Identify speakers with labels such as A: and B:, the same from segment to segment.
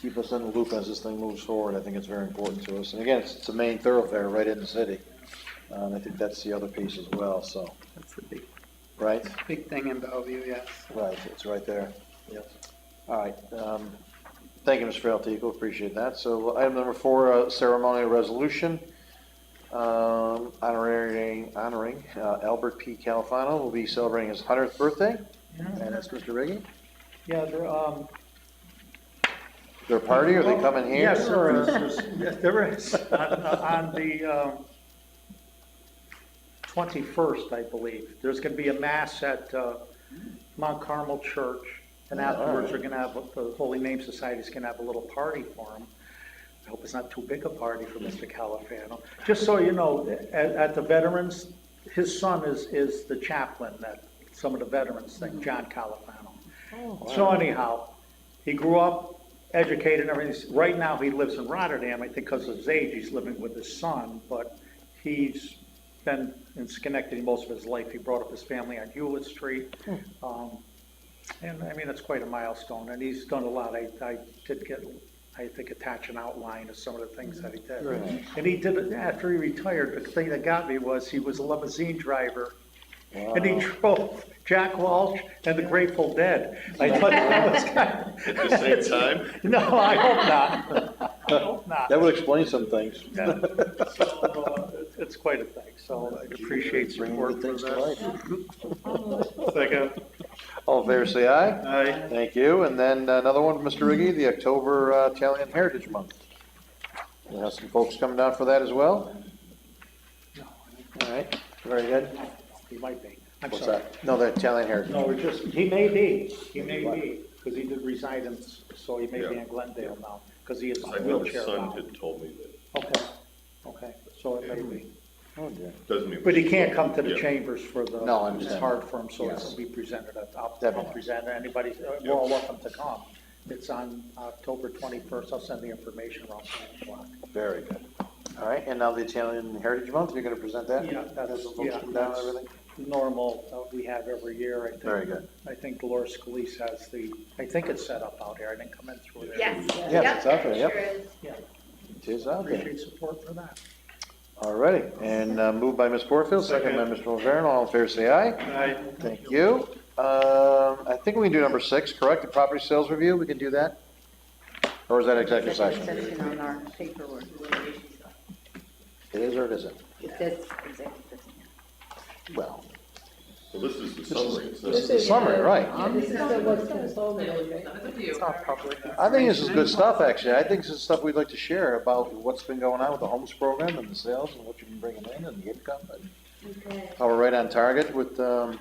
A: keep us in the loop as this thing moves forward. I think it's very important to us. And again, it's, it's a main thoroughfare right in the city. Uh, And I think that's the other piece as well, so,
B: That's the big,
A: right?
B: big thing in Bellevue, yes.
A: Right, it's right there. Yep. All right, um, thank you, Mr. Altico, appreciate that. So item number four, uh, ceremonial resolution, um, honoring, honoring uh, Albert P. Califano, will be celebrating his hundredth birthday. And that's Mr. Riggi.
C: Yeah, there, um.
A: Is there a party, or they come in here?
C: Yes, there is, There's- yes, there is, on, uh, on the, um, twenty-first, I believe, there's gonna be a mass at, uh, Mount Carmel Church, and
A: Yeah, all
C: afterwards, we're
A: right.
C: gonna have, the Holy Name Society's gonna have a little party for him. I hope it's not too big a party for Mr. Califano. Just so you know, at, at the veterans, his son is, is the chaplain at some of the veterans
A: Mm-hmm.
C: thing, John Califano.
A: Oh,
C: So anyhow, he grew up educated and everything. Right now, he lives in Rotterdam, I think because of his age, he's living with his son, but he's been in Schenectady most of his life. He brought up his family on Hewlett Street. Um, and I mean, it's quite a milestone, and he's done a lot. I, I did get, I think, attach an outline of some of the things that he did.
A: Very nice.
C: And he did, it after he retired, the thing that got me was he was a limousine driver and he
A: Wow.
C: drove Jack Walsh and the Grateful Dead. I thought that was kind
D: At the same time?
C: of, no, I hope not. I hope not.
A: That would explain some things.
C: Yeah. So, uh, it's- It's quite a thing, so I appreciate
A: Bringing
C: support
A: good
C: for
A: things to
C: that.
A: life.
C: Second.
A: All in favor, say aye.
C: Aye.
A: Thank you. And then another one, from Mr. Riggi, the October uh, Italian Heritage Month. We have some folks coming down for that as well.
C: No,
A: All right, very good.
C: He might be. I'm
A: What's
C: sorry.
A: that? No, the Italian Heritage.
C: No, we're just, he may be, he may be, because he did resign in, so he may be
D: Yeah.
C: in Glendale now, because he is
D: I know his
C: wheelchair
D: son
C: bound.
D: had told me that,
C: Okay, okay, so it may be.
A: Oh, dear.
D: doesn't mean.
C: But he can't come to the
D: Yeah.
C: chambers for the.
A: No, I understand.
C: It's hard for him, so
A: Yes.
C: it's to be presented, at- I'll, I'll
A: Definitely.
C: present, it. anybody, uh, we're all welcome to come. It's on October twenty-first, I'll send the information around nine o'clock.
A: Very good. All right, and now the Italian Heritage Month, you're going to present that?
C: Yeah,
A: Have
C: that's,
A: some folks
C: yeah,
A: come down and
C: that's
A: everything?
C: normal, uh, we have every year, I think.
A: Very good.
C: I think Dolores Scalise has the, I think it's set up out there, I didn't come in through there.
E: Yes.
A: Yeah, it's out there, yep.
E: Sure is.
C: Yeah,
A: It is out there.
C: appreciate support for that.
A: All righty, and uh, moved by Ms. Porterfield, second by Mr. Mulveon, all in favor, say aye.
C: Aye.
A: Thank you. Um, I think we can do number six, correct? The property sales review, we can do that? Or is that executive session?
E: Executive session on our paperwork.
A: It is or it isn't?
E: It says executive session.
A: Well,
D: So this is the summary. It
A: this is
D: says-
A: the summary, right?
F: Um, This is the what's controlled and everything.
G: It's
A: I think this is good stuff, actually. I think this is stuff we'd like to share about what's been going on with the homes program and the sales and what you've been bringing in and the income and
E: Okay.
A: how we're right on target with, um,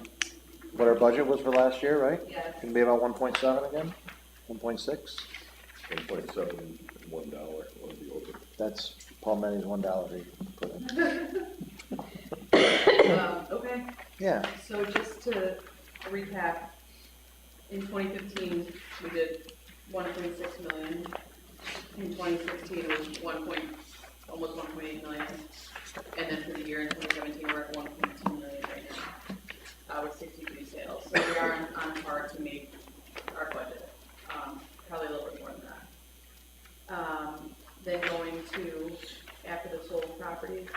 A: what our budget was for last year, right?
G: Yes.
A: Gonna be about one point seven again, one point six.
D: One point seven, one dollar, one of the open.
A: That's Palmetto's one dollar they put in.
G: Um, Okay,
A: Yeah,
G: so just to recap, in twenty fifteen, we did one point six million. In twenty sixteen, it was one point, almost one point eight million. And then for the year in twenty seventeen, we're at one point two million right now, uh, with sixty-three sales. So we are on- on par to make our budget, um, probably a little bit more than that. Um, Then going to, after the sold properties,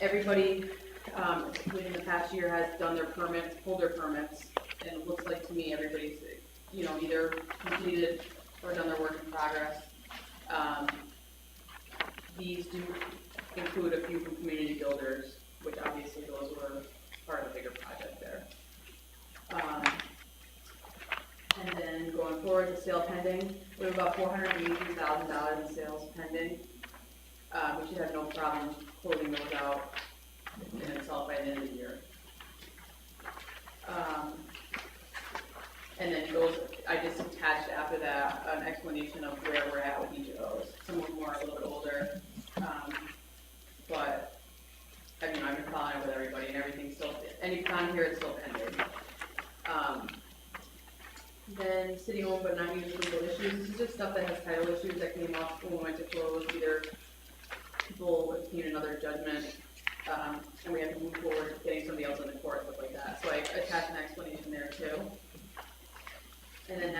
G: everybody, um, within the past year has done their permits, pulled their permits, and it looks like to me, everybody's, you know, either completed or done their work in progress. Um, These do include a few from community builders, which obviously those were part of the bigger project there. Um, And then going forward, the sale pending, we have about four hundred and eighty thousand dollars in sales pending. Uh, we should have no problem closing those out and it's all by the end of the year. Um, And then goes, I just attached after that an explanation of where we're at with each of those. Some of them are a little bit older, um, but, I mean, I've been following up with everybody and everything's still, any con here is still pending. Um, Then city owned but not used legal issues, this is just stuff that has title issues that came up when we went to close, either people obtained another judgment um, and we have to move forward with getting somebody else on the court, stuff like that. So I attached an explanation there too. And then